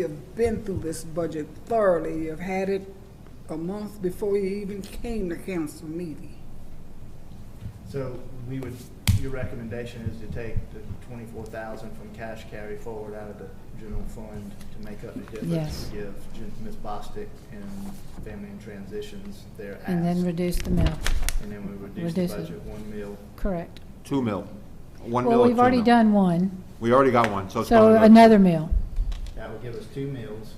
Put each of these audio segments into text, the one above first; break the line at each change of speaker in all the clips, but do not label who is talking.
You have been through this budget thoroughly. You've had it a month before you even came to council meeting.
So we would, your recommendation is to take the twenty-four thousand from cash carry forward out of the general fund to make up the difference
Yes.
to give Gen- Ms. Bostic and Family and Transitions their ask.
And then reduce the mill,
And then we reduce the
reduce it.
budget one mil.
correct.
Two mil. One mil
Well,
or
we've
two
already
mil?
done one,
We already got one, so it's
so
going to.
another mill.
That would give us two mills,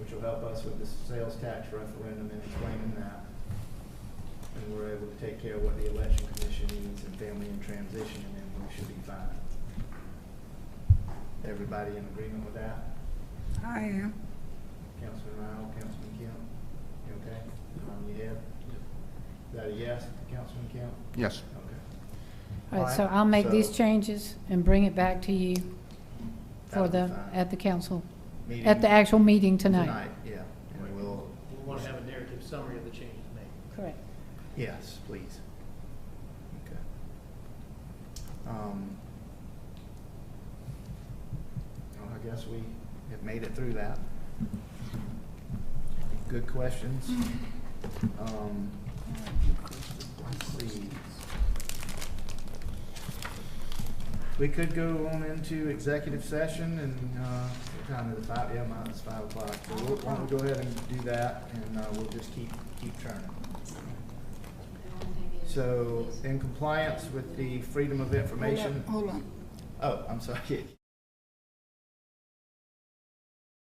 which will help us with the sales tax referendum and explaining that. And we're able to take care of what the election commission needs and Family and Transition, and then we should be fine. Everybody in agreement with that?
I am.
Councilman Ryle, Councilman Kemp, you okay? Um, you have? Is that a yes, Councilman Kemp?
Yes.
Okay.
All right, so
Alright,
I'll make these
so-
changes and bring it back to you for
That'll
the,
be fine.
at the council, at
Meeting
the actual meeting tonight.
Tonight, yeah, and we'll,
We want to have a narrative summary of the changes made.
Correct.
yes, please. Okay. Um, Well, I guess we have made it through that. Good questions. Um, let's see. We could go on into executive session and, uh, what time is it, five, yeah, mine is five o'clock. So we'll, why don't we go ahead and do that and, uh, we'll just keep, keep turning. So in compliance with the Freedom of Information,
Hold on.
oh, I'm sorry.